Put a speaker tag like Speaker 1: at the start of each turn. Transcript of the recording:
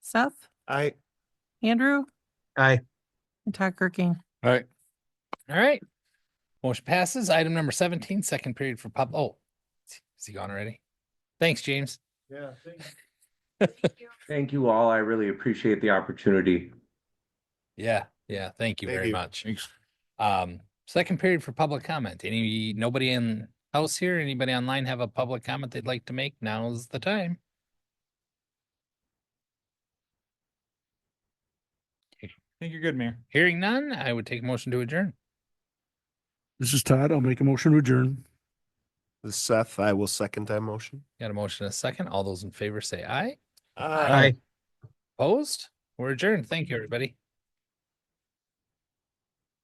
Speaker 1: Seth,
Speaker 2: I,
Speaker 1: Andrew,
Speaker 3: Aye.
Speaker 1: and Todd Kirking.
Speaker 4: All right.
Speaker 5: All right. Motion passes. Item number seventeen, second period for pub. Oh, is he gone already? Thanks, James.
Speaker 2: yeah,
Speaker 3: Thank you all. I really appreciate the opportunity.
Speaker 5: Yeah, yeah. Thank you
Speaker 2: Thank
Speaker 5: very
Speaker 2: you.
Speaker 5: much. Um, second period for public comment. Any, nobody in house here? Anybody online have a public comment they'd like to make? Now's the time.
Speaker 6: think you're good, Mayor.
Speaker 5: Hearing none, I would take a motion to adjourn.
Speaker 7: This is Todd. I'll make a motion to adjourn.
Speaker 2: This is Seth, I will second that motion.
Speaker 5: Got a motion and a second. All those in favor say aye.
Speaker 2: Aye.
Speaker 5: Opposed? We're adjourned. Thank you, everybody.